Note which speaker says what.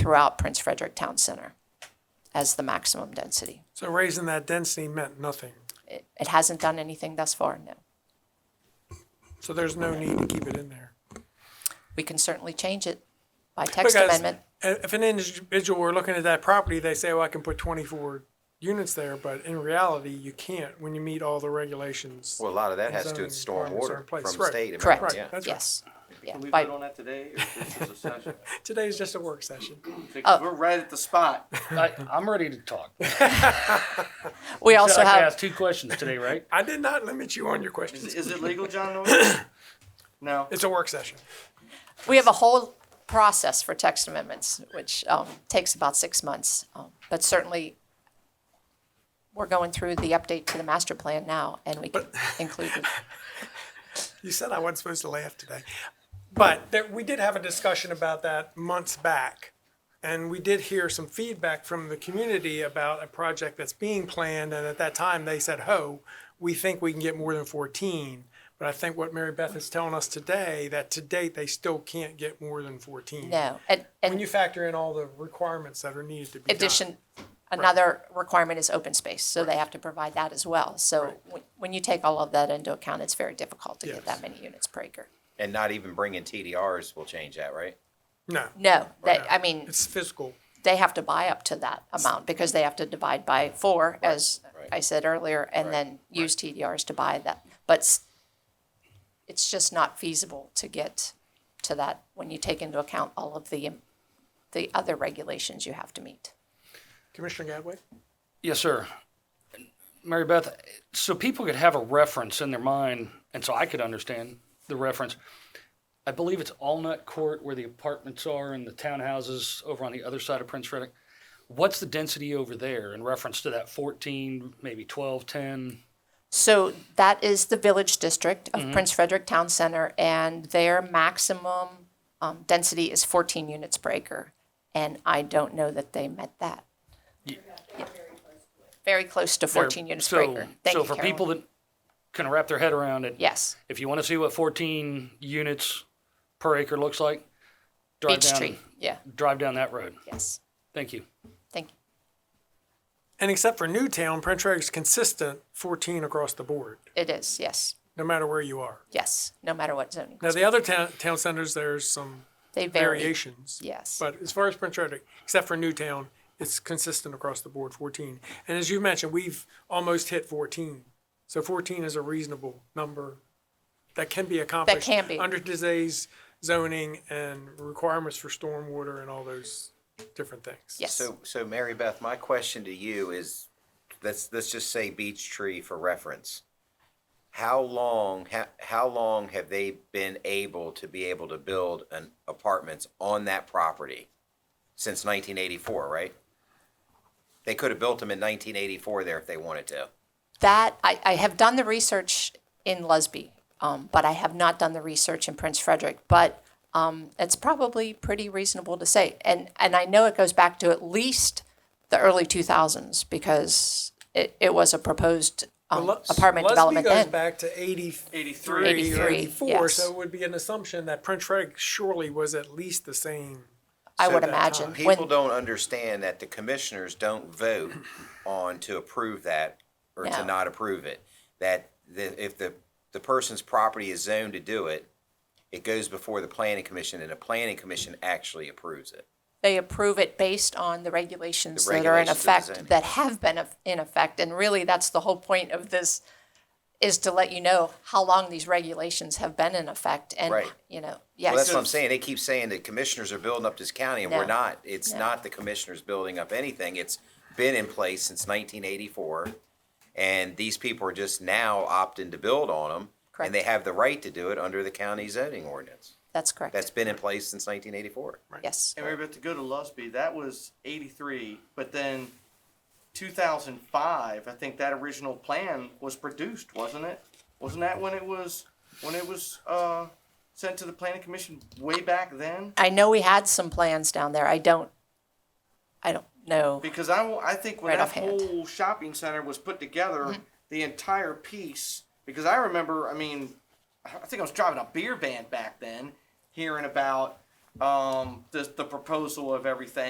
Speaker 1: throughout Prince Frederick Town Center as the maximum density.
Speaker 2: So raising that density meant nothing.
Speaker 1: It, it hasn't done anything thus far, no.
Speaker 2: So there's no need to keep it in there.
Speaker 1: We can certainly change it by text
Speaker 2: Because
Speaker 1: amendment.
Speaker 2: i- If an individual were looking at that property, they say, well, I can put twenty-four units there, but in reality, you can't when you meet all the regulations.
Speaker 3: Well, a lot of that has to do with
Speaker 2: Zoning requirements are in
Speaker 3: stormwater from
Speaker 2: place,
Speaker 3: state.
Speaker 2: right.
Speaker 3: amendment,
Speaker 1: Correct,
Speaker 3: yeah.
Speaker 2: that's right.
Speaker 1: yes. Yeah,
Speaker 4: Can we
Speaker 1: by-
Speaker 4: vote on that today, or this is a session?
Speaker 2: Today's just a work session.
Speaker 4: Because we're right at the spot.
Speaker 5: I, I'm ready to talk. I
Speaker 1: we also
Speaker 5: can
Speaker 1: have,
Speaker 5: ask two questions today, right?
Speaker 2: I did not limit you on your
Speaker 4: Is,
Speaker 2: questions.
Speaker 4: is it legal, John? Norris? No.
Speaker 2: It's a work session.
Speaker 1: we have a whole process for text amendments, which um, takes about six months. Um, But certainly, we're going through the update to the master plan now, and we can include it.
Speaker 2: You said I wasn't supposed to laugh today. But there, we did have a discussion about that months back. And we did hear some feedback from the community about a project that's being planned. And at that time, they said, ho, we think we can get more than 14. But I think what Mary Beth is telling us today, that to date, they still can't get more than 14.
Speaker 1: No, and,
Speaker 2: When
Speaker 1: and
Speaker 2: you factor in all the requirements that are needed to be done.
Speaker 1: addition, another requirement is open space, so they have to provide that as well. So when- when you take all of that into account, it's very difficult to get
Speaker 2: Yes.
Speaker 1: that many units per acre.
Speaker 3: And not even bringing TDRs will change that, right?
Speaker 2: No,
Speaker 1: No, that, I mean.
Speaker 2: it's physical.
Speaker 1: they have to buy up to that amount because they have to divide by four, as
Speaker 3: right.
Speaker 1: I said earlier, and then use TDRs to buy that. But s- it's just not feasible to get to that when you take into account all of the, the other regulations you have to meet.
Speaker 2: Commissioner Gadway?
Speaker 5: Yes, sir. Mary Beth, so people could have a reference in their mind, and so I could understand the reference. I believe it's Allnut Court where the apartments are and the townhouses over on the other side of Prince Frederick. What's the density over there in reference to that 14, maybe 12, 10?
Speaker 1: So that is the village district
Speaker 5: Mm-hmm.
Speaker 1: of Prince Frederick Town Center, and their maximum um, density is 14 units per acre. And I don't know that they met that. Yeah. Very close to 14 units per
Speaker 5: so,
Speaker 1: acre. Thank
Speaker 5: so
Speaker 1: you,
Speaker 5: for
Speaker 1: Carolyn.
Speaker 5: people that can wrap their head around it,
Speaker 1: Yes,
Speaker 5: if you want to see what 14 units per acre looks like, drive
Speaker 1: Beech
Speaker 5: down,
Speaker 1: Tree, yeah,
Speaker 5: drive down that road.
Speaker 1: yes,
Speaker 5: Thank you.
Speaker 1: thank you.
Speaker 2: And except for Newtown, Prince Frederick's consistent 14 across the board,
Speaker 1: It is, yes,
Speaker 2: no matter where you are.
Speaker 1: yes, no matter what zoning.
Speaker 2: Now, the other town, town centers, there's some
Speaker 1: They vary,
Speaker 2: variations.
Speaker 1: yes.
Speaker 2: But as far as Prince Frederick, except for Newtown, it's consistent across the board, 14. And as you mentioned, we've almost hit 14. So 14 is a reasonable number that can be accomplished.
Speaker 1: can be.
Speaker 2: Under today's zoning and requirements for stormwater and all those different things.
Speaker 1: yes.
Speaker 3: So, so Mary Beth, my question to you is, let's, let's just say Beech Tree for reference. How long, how, how long have they been able to be able to build an apartments on that property? Since nineteen eighty-four, right? They could have built them in nineteen eighty-four there if they wanted to.
Speaker 1: That, I, I have done the research in Lusby, um, but I have not done the research in Prince Frederick. But um, it's probably pretty reasonable to say. And, and I know it goes back to at least the early 2000s because it, it was a proposed um,
Speaker 2: Well, Lus-
Speaker 1: apartment development
Speaker 2: Lusby goes
Speaker 1: then.
Speaker 2: back to 83
Speaker 4: 83.
Speaker 1: 83,
Speaker 2: or 84,
Speaker 1: yes.
Speaker 2: so it would be an assumption that Prince Frederick surely was at least the same.
Speaker 1: I
Speaker 3: So
Speaker 1: would
Speaker 3: that
Speaker 1: imagine.
Speaker 3: People
Speaker 1: When-
Speaker 3: don't understand that the commissioners don't vote on to approve that or
Speaker 1: No.
Speaker 3: to not approve it. That the, if the, the person's property is zoned to do it, it goes before the planning commission and the planning commission actually approves it.
Speaker 1: they approve it based on the regulations
Speaker 3: The
Speaker 1: that are in
Speaker 3: regulations of the
Speaker 1: effect,
Speaker 3: zoning.
Speaker 1: that have been of- in effect. And really, that's the whole point of this, is to let you know how long these regulations have been in effect. And,
Speaker 3: Right.
Speaker 1: you know,
Speaker 3: Well, that's what I'm
Speaker 1: yes,
Speaker 3: saying. They keep saying that commissioners are building up this county and
Speaker 1: No.
Speaker 3: we're not. It's
Speaker 1: No.
Speaker 3: not the commissioners building up anything. It's been in place since nineteen eighty-four. And these people are just now opting to build on them. And they
Speaker 1: Correct.
Speaker 3: have the right to do it under the county zoning ordinance.
Speaker 1: that's correct.
Speaker 3: that's been in place since 1984.
Speaker 1: Yes,
Speaker 4: And we were about to go to Lusby. That was 83, but then 2005, I think that original plan was produced, wasn't it? Wasn't that when it was when it was uh, sent to the planning commission way back then?
Speaker 1: I know we had some plans down there. I don't, I don't know.
Speaker 4: Because I, will- I think when
Speaker 1: Right
Speaker 4: that
Speaker 1: offhand. Mm-hmm.
Speaker 4: whole shopping center was put together, the entire piece. Because I remember, I mean, I I think I was driving a beer van back then, hearing about um, the the proposal of everything.